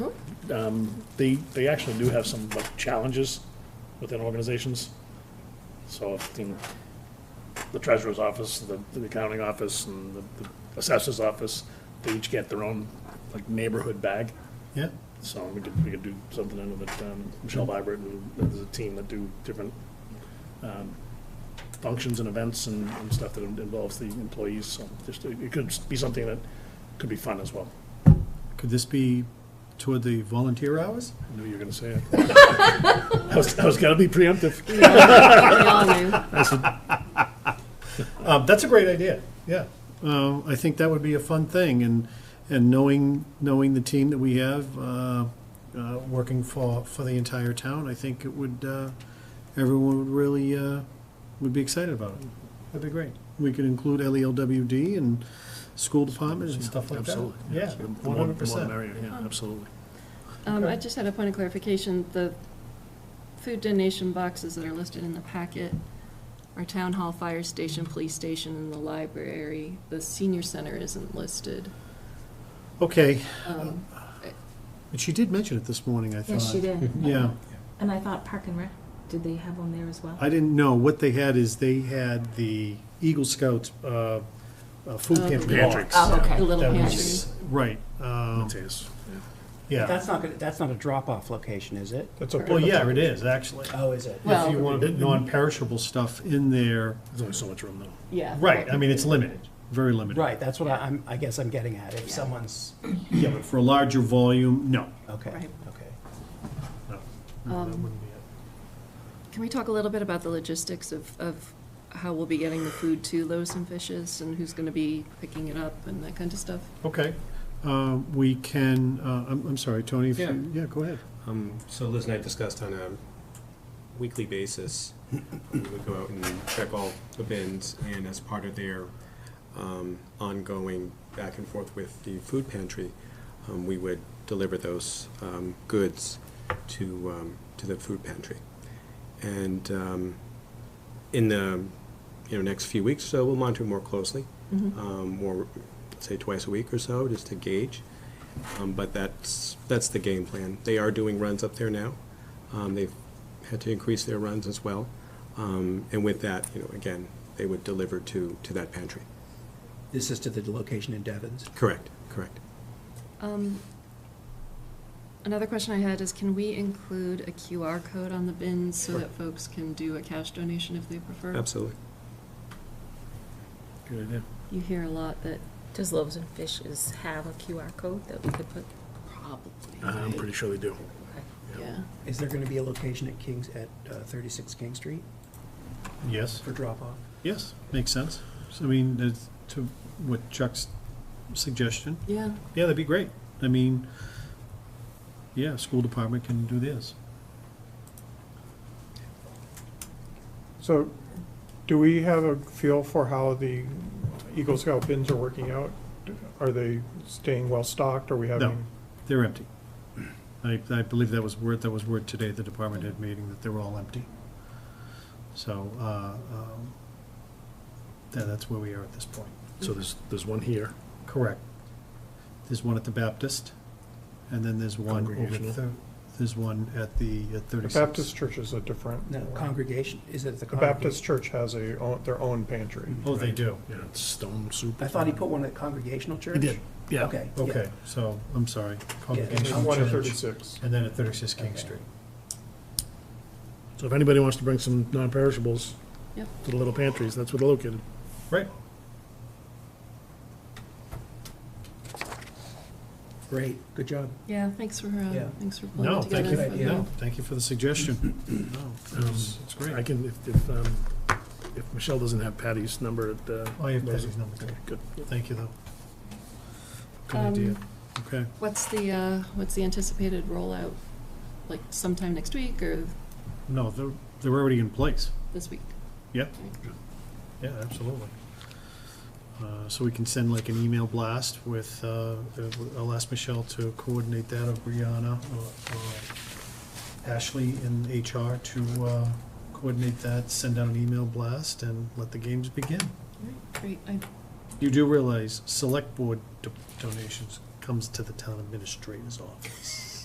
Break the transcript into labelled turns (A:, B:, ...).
A: um, they, they actually do have some like, challenges within organizations. So if the- the treasurer's office, the the accounting office, and the the assessor's office, they each get their own like neighborhood bag.
B: Yeah,
A: So we could, we could do something in it, um, Michelle Vibert and there's a team that do different, um, functions and events and, and stuff that involves the employees, so just, it it could be something that could be fun as well.
B: could this be toward the volunteer hours?
A: I knew you were gonna say it. I was, I was gonna be preemptive.
C: We all knew.
B: Um, that's a great idea, yeah. Uh, I think that would be a fun thing, and, and knowing, knowing the team that we have, uh, uh, working for, for the entire town, I think it would, uh, everyone would really, uh, would be excited about it. That'd be great. We could include E LELWD and school departments and stuff like that.
A: Absolutely.
B: Yeah,
A: The more- the more
B: one hundred
A: the
B: percent.
A: merrier, Yeah, absolutely.
D: Oh,
C: Um, I
B: Okay.
C: just had a point of clarification, the food donation boxes that are listed in the packet are town hall, fire station, police station, and the library. The senior center isn't listed.
B: Okay,
C: Um,
B: but she did mention it this morning, I thought.
E: Yes, she did.
B: Yeah.
E: And I thought Park and Rec, did they have one there as well?
B: I didn't know. What they had is they had the Eagle Scouts uh, uh, food
C: Oh,
B: pantry.
A: Patrick's.
B: box.
E: Oh, okay.
C: The little
B: That
C: pantry.
B: was- Right. um,
A: It is.
B: Yeah.
D: That's not, gonna- that's not a drop-off location, is it?
A: That's okay.
B: Well, yeah, it is, actually.
D: Oh, is it?
C: Well-
B: If you want to put non-perishable stuff in there,
A: There's only so much room though.
C: Yeah.
B: right, I mean, it's limited, very limited.
D: Right, that's what I- I'm, I guess I'm getting at, if someone's,
B: Yeah, but for a larger volume, no.
D: okay,
C: Right.
D: okay.
B: no, no, that
C: Um,
B: wouldn't be it.
C: Can we talk a little bit about the logistics of, of how we'll be getting the food to Loaves and Fishes and who's gonna be picking it up and that kind of stuff?
B: Okay. Um, We can, uh, I'm I'm sorry, Tony, if you, yeah, go ahead.
F: Um, so Liz and I discussed on a weekly basis, we would go out and check all the bins, and as part of their, um, ongoing back and forth with the food pantry, um, we would deliver those, um, goods to, um, to the food pantry. And, um, in the, you know, next few weeks, so we'll monitor more closely, um, more, say, twice a week or so, just to gauge. Um, But that's, that's the game plan. They are doing runs up there now. Um, They've had to increase their runs as well. Um, And with that, you know, again, they would deliver to, to that pantry.
D: This is to the location in Devon's.
F: Correct, correct.
C: Um, Another question I had is, can we include a QR code on the bins so that folks can do a cash donation if they prefer?
F: Absolutely.
A: Good idea.
C: You hear a lot that
G: Does Loaves and Fishes have a QR code that we could put?
C: probably,
A: Uh, I'm pretty sure they do.
C: yeah.
D: Is there gonna be a location at Kings, at uh, thirty-six King Street
B: Yes.
D: for drop-off?
B: Yes, makes sense. So, I mean, that's to what Chuck's suggestion,
C: Yeah,
B: Yeah, that'd be great. I mean, yeah, school department can do this.
H: So, do we have a feel for how the Eagle Scout bins are working out? Are they staying well-stocked, are we having?
B: They're empty. I, I believe that was word, that was word today, at the department head meeting, that they were all empty. So, uh, um, tha- that's where we are at this point.
A: So there's, there's one here.
B: Correct. There's one at the Baptist, and then there's one over
A: Congregational.
B: the, there's one at the at
H: The
B: thirty-six.
H: Baptist church is a different.
D: No, congregation, is it the
H: The
D: congregation?
H: Baptist church has a, own- their own pantry.
B: Oh, they do.
A: Yeah, it's stone soup.
D: I thought he put one at Congregational Church?
A: He did, yeah.
D: Okay. yeah.
B: Okay, so, I'm sorry.
H: And there's
B: Congregational
H: one at
B: Church,
H: thirty-six.
B: And then at thirty-six King
D: Okay.
B: Street.
A: So if anybody wants to bring some non-perishables
C: Yep.
A: to the little pantries, that's where they're located.
B: Right.
D: Great, good job.
C: yeah, thanks for, uh,
D: Yeah.
C: thanks for pulling
B: No,
C: it
B: thank
C: together.
B: you,
D: Good idea.
B: no, thank you for the suggestion. Um, No, it's it's
A: I
B: great.
A: can, if, if, um, if Michelle doesn't have Patty's number at, uh.
B: Oh, yeah,
A: Lowe's-
B: Patty's number, okay.
A: Good.
B: Thank you, though. Good
C: Um,
B: idea. Okay,
C: What's the, uh, what's the anticipated rollout, like sometime next week or
B: no, they're, they're already in place.
C: this week?
B: Yep. Yeah, absolutely. Uh, So we can send like an email blast with, uh, I'll ask Michelle to coordinate that, or Brianna, or or Ashley in HR to uh, coordinate that, send out an email blast, and let the games begin.
C: Alright, Great, I,
B: You do realize select board do- donations comes to the town administrator's office.